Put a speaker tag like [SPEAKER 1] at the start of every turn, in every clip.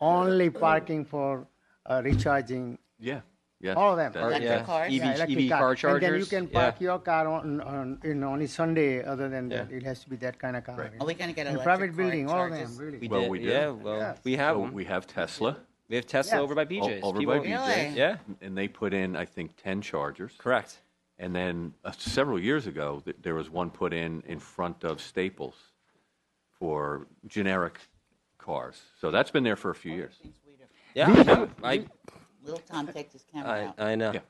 [SPEAKER 1] only parking for uh, recharging
[SPEAKER 2] Yeah, yeah.
[SPEAKER 1] All of them.
[SPEAKER 2] That-
[SPEAKER 1] Electric
[SPEAKER 2] yeah.
[SPEAKER 3] cars,
[SPEAKER 4] E
[SPEAKER 2] EV,
[SPEAKER 3] yeah.
[SPEAKER 1] electric
[SPEAKER 2] EV
[SPEAKER 1] E car.
[SPEAKER 2] car
[SPEAKER 1] And
[SPEAKER 2] chargers.
[SPEAKER 1] then you can
[SPEAKER 2] yeah.
[SPEAKER 1] park your car on, on you know, only Sunday. Other than that, it has to be that kind of car.
[SPEAKER 3] Are we gonna get
[SPEAKER 1] In
[SPEAKER 3] electric
[SPEAKER 1] private
[SPEAKER 3] car
[SPEAKER 1] building, all of them,
[SPEAKER 3] charges?
[SPEAKER 1] really.
[SPEAKER 4] We
[SPEAKER 2] Well,
[SPEAKER 4] did,
[SPEAKER 2] we do.
[SPEAKER 4] yeah. Well,
[SPEAKER 1] Yes.
[SPEAKER 4] we have
[SPEAKER 2] So
[SPEAKER 4] them.
[SPEAKER 2] we have Tesla
[SPEAKER 4] We have Tesla
[SPEAKER 1] Yes.
[SPEAKER 4] over by
[SPEAKER 2] o-
[SPEAKER 4] BJ's.
[SPEAKER 2] over
[SPEAKER 4] People-
[SPEAKER 2] by BJ's,
[SPEAKER 3] Really?
[SPEAKER 4] Yeah,
[SPEAKER 2] and they put in I think ten chargers.
[SPEAKER 4] correct.
[SPEAKER 2] And then uh, several years ago, th- there was one put in in front of Staples for generic cars. So that's been there for a few years.
[SPEAKER 4] Yeah, I know. I,
[SPEAKER 3] Little Tom takes his
[SPEAKER 4] I,
[SPEAKER 3] camera out.
[SPEAKER 4] I know.
[SPEAKER 2] Yeah.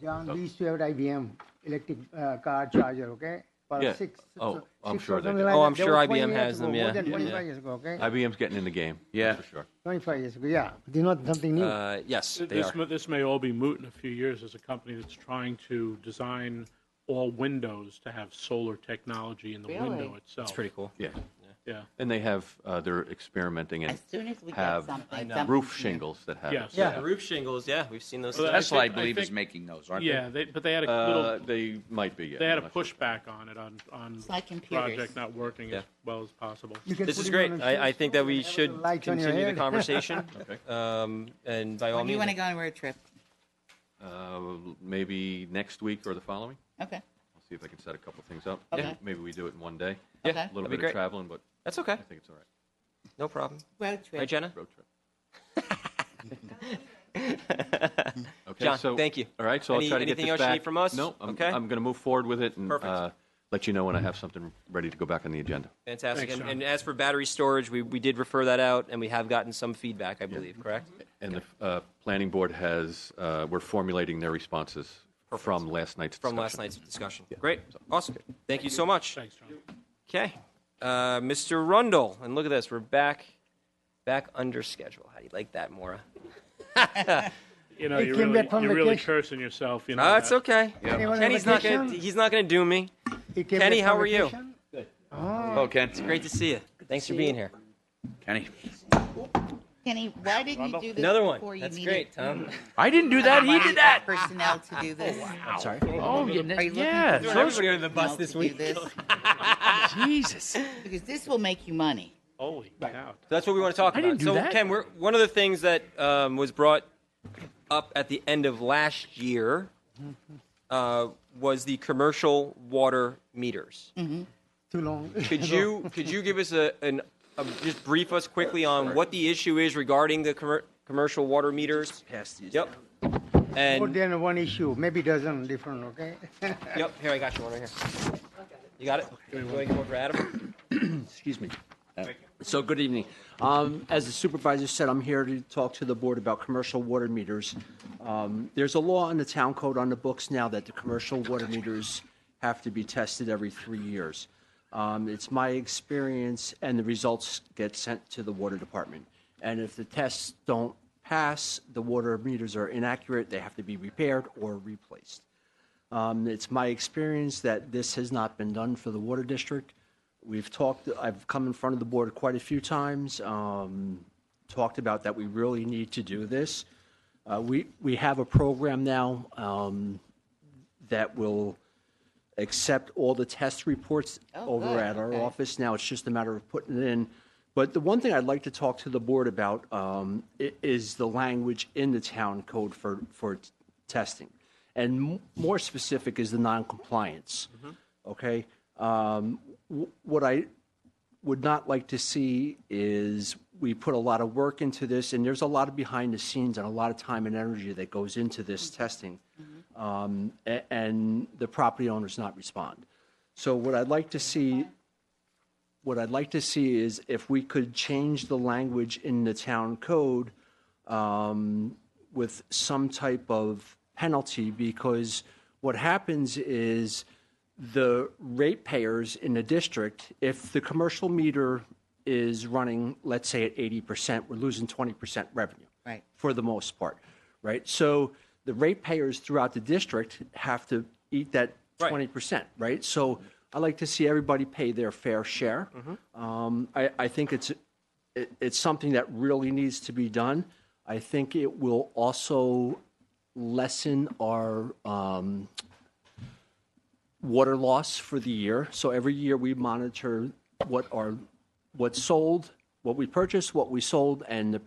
[SPEAKER 1] John,
[SPEAKER 4] Oh.
[SPEAKER 1] we used to have at IBM electric uh, car charger. Okay. For
[SPEAKER 2] Yeah.
[SPEAKER 1] Six,
[SPEAKER 2] Oh,
[SPEAKER 1] six
[SPEAKER 2] I'm
[SPEAKER 1] or
[SPEAKER 2] sure they
[SPEAKER 1] something
[SPEAKER 2] do.
[SPEAKER 1] like
[SPEAKER 4] Oh,
[SPEAKER 1] that.
[SPEAKER 4] I'm
[SPEAKER 1] That
[SPEAKER 4] sure
[SPEAKER 1] was
[SPEAKER 4] IBM
[SPEAKER 1] 20 years
[SPEAKER 4] has them,
[SPEAKER 1] ago,
[SPEAKER 4] yeah.
[SPEAKER 1] More than
[SPEAKER 4] Yeah.
[SPEAKER 1] 25 years ago. Okay.
[SPEAKER 2] IBM's getting in the game.
[SPEAKER 4] Yeah.
[SPEAKER 2] that's for sure.
[SPEAKER 1] 25 years ago. Yeah. They're not something new.
[SPEAKER 4] Uh, yes, they
[SPEAKER 5] This,
[SPEAKER 4] are.
[SPEAKER 5] may- this may all be moot in a few years as a company that's trying to design all windows to have solar technology in the window
[SPEAKER 3] Really?
[SPEAKER 5] itself.
[SPEAKER 4] It's pretty cool.
[SPEAKER 2] Yeah.
[SPEAKER 5] Yeah.
[SPEAKER 2] And they have uh, they're experimenting and
[SPEAKER 3] As soon as we
[SPEAKER 2] have
[SPEAKER 3] get something,
[SPEAKER 2] roof
[SPEAKER 3] something-
[SPEAKER 2] shingles that have
[SPEAKER 5] Yes.
[SPEAKER 4] Yeah,
[SPEAKER 5] Yeah.
[SPEAKER 4] roof shingles. Yeah, we've seen those.
[SPEAKER 5] Well,
[SPEAKER 4] things.
[SPEAKER 5] that's-
[SPEAKER 6] Tesla, I
[SPEAKER 5] think- I
[SPEAKER 6] believe, is
[SPEAKER 5] think-
[SPEAKER 6] making those, aren't
[SPEAKER 5] Yeah, they, but they had a
[SPEAKER 2] Uh,
[SPEAKER 5] little,
[SPEAKER 2] they might be. Yeah,
[SPEAKER 5] they had a
[SPEAKER 2] I'm not sure.
[SPEAKER 5] pushback on it on on
[SPEAKER 3] It's like computers.
[SPEAKER 5] project not working as well as possible.
[SPEAKER 1] You can
[SPEAKER 4] This
[SPEAKER 1] put
[SPEAKER 4] is
[SPEAKER 1] it
[SPEAKER 4] great.
[SPEAKER 1] on a
[SPEAKER 4] I, I
[SPEAKER 1] fridge
[SPEAKER 4] think
[SPEAKER 1] door
[SPEAKER 4] that we
[SPEAKER 1] and have a
[SPEAKER 4] should
[SPEAKER 1] little light on your
[SPEAKER 4] continue the
[SPEAKER 1] head.
[SPEAKER 4] conversation. um, and by all
[SPEAKER 3] When do
[SPEAKER 4] means,
[SPEAKER 3] you want to go on a road trip?
[SPEAKER 2] Uh, maybe next week or the following.
[SPEAKER 3] Okay,
[SPEAKER 2] I'll see if I can set a couple things up.
[SPEAKER 3] Okay.
[SPEAKER 2] Yeah, Maybe we do it in one day.
[SPEAKER 4] Yeah,
[SPEAKER 3] Okay.
[SPEAKER 2] A little
[SPEAKER 4] that'd be
[SPEAKER 2] bit
[SPEAKER 4] great.
[SPEAKER 2] of traveling, but
[SPEAKER 4] That's okay.
[SPEAKER 2] I think it's all right.
[SPEAKER 4] No problem.
[SPEAKER 3] road
[SPEAKER 4] Right,
[SPEAKER 3] trip.
[SPEAKER 4] Jenna?
[SPEAKER 2] Road trip. Okay,
[SPEAKER 4] John,
[SPEAKER 2] so,
[SPEAKER 4] thank you.
[SPEAKER 2] All right, so
[SPEAKER 4] Any-
[SPEAKER 2] I'll try to get
[SPEAKER 4] anything
[SPEAKER 2] this
[SPEAKER 4] else you
[SPEAKER 2] back.
[SPEAKER 4] need from us?
[SPEAKER 2] No, I'm,
[SPEAKER 4] Okay.
[SPEAKER 2] I'm going to move forward with it and
[SPEAKER 4] Perfect.
[SPEAKER 2] Uh, let you know when I have something ready to go back on the agenda.
[SPEAKER 4] Fantastic.
[SPEAKER 5] Thanks,
[SPEAKER 4] and,
[SPEAKER 5] Sean.
[SPEAKER 4] and as for battery storage, we, we did refer that out, and we have gotten some feedback, I believe, correct?
[SPEAKER 2] And the uh, planning board has uh, we're formulating their responses from last night's
[SPEAKER 4] From last
[SPEAKER 2] discussion.
[SPEAKER 4] night's discussion. Great. Awesome. Thank you so much.
[SPEAKER 5] Thanks, John.
[SPEAKER 4] Okay. Uh, Mr. Rundle, and look at this, we're back back under schedule. How do you like that, Mora?
[SPEAKER 5] You know,
[SPEAKER 1] He
[SPEAKER 5] you're
[SPEAKER 1] came
[SPEAKER 5] really,
[SPEAKER 1] back from
[SPEAKER 5] you're really
[SPEAKER 1] vacation.
[SPEAKER 5] cursing yourself. You know.
[SPEAKER 4] No, it's
[SPEAKER 5] that.
[SPEAKER 4] okay.
[SPEAKER 1] Anyone on
[SPEAKER 4] Kenny's not gonna
[SPEAKER 1] vacation?
[SPEAKER 4] he's not gonna do me.
[SPEAKER 1] He came
[SPEAKER 4] Kenny,
[SPEAKER 1] back from
[SPEAKER 4] how are you?
[SPEAKER 1] vacation?
[SPEAKER 6] they? Okay.
[SPEAKER 4] Great to see you. Thanks for being here.
[SPEAKER 6] Kenny.
[SPEAKER 3] Kenny, why didn't you do this
[SPEAKER 4] Another one.
[SPEAKER 3] before you
[SPEAKER 4] That's
[SPEAKER 3] needed?
[SPEAKER 4] great, Tom.
[SPEAKER 6] I didn't do that. He
[SPEAKER 3] why
[SPEAKER 6] did that.
[SPEAKER 3] Personnel to do this.
[SPEAKER 4] I'm sorry.
[SPEAKER 6] Oh, you-
[SPEAKER 3] Are you looking
[SPEAKER 6] yeah.
[SPEAKER 3] for
[SPEAKER 6] those-
[SPEAKER 4] everybody on the bus
[SPEAKER 3] personnel
[SPEAKER 4] this
[SPEAKER 3] to do
[SPEAKER 4] week.
[SPEAKER 3] this?
[SPEAKER 6] Jesus.
[SPEAKER 3] Because this will make you money.
[SPEAKER 5] Holy cow.
[SPEAKER 4] So that's what we want to talk
[SPEAKER 6] I
[SPEAKER 4] about.
[SPEAKER 6] didn't do
[SPEAKER 4] so,
[SPEAKER 6] that.
[SPEAKER 4] Ken, we're, one of the things that um, was brought up at the end of last year uh, was the commercial water meters.
[SPEAKER 1] Too long.
[SPEAKER 4] Could you could you give us a, an a, just brief us quickly on what the issue is regarding the commer commercial water meters?
[SPEAKER 6] Pass these
[SPEAKER 4] Yep.
[SPEAKER 6] down.
[SPEAKER 1] More
[SPEAKER 4] And
[SPEAKER 1] than one issue, maybe dozen different. Okay.
[SPEAKER 4] yep, here I got you one right here. You got it. You want to go over Adam?
[SPEAKER 7] Excuse me. Uh, So, good evening. Um, As the supervisor said, I'm here to talk to the board about commercial water meters. Um, There's a law in the town code on the books now that the commercial water meters have to be tested every three years. Um, It's my experience, and the results get sent to the water department. And if the tests don't pass, the water meters are inaccurate, they have to be repaired or replaced. Um, It's my experience that this has not been done for the water district. We've talked, I've come in front of the board quite a few times, um, talked about that we really need to do this. Uh, We, we have a program now um, that will accept all the test reports
[SPEAKER 3] Oh,
[SPEAKER 7] over
[SPEAKER 3] good.
[SPEAKER 7] at our
[SPEAKER 3] Okay.
[SPEAKER 7] office now. It's just a matter of putting it in. But the one thing I'd like to talk to the board about um, i- is the language in the town code for, for t- testing. And m- more specific is the noncompliance.
[SPEAKER 3] Mm-hmm.
[SPEAKER 7] Okay? Um, wh- What I would not like to see is we put a lot of work into this, and there's a lot of behind the scenes and a lot of time and energy that goes into this testing, um, a- and the property owners not respond. So what I'd like to see, what I'd like to see is if we could change the language in the town code um, with some type of penalty, because what happens is the ratepayers in the district, if the commercial meter is running, let's say at 80%, we're losing 20% revenue.
[SPEAKER 3] Right.
[SPEAKER 7] For the most part, right? So the ratepayers throughout the district have to eat that
[SPEAKER 4] Right.
[SPEAKER 7] 20%, right? So I like to see everybody pay their fair share. Um, I, I think it's, it, it's something that really needs to be done. I think it will also lessen our um, water loss for the year. So every year we monitor what our, what's sold, what we purchased, what we sold, and the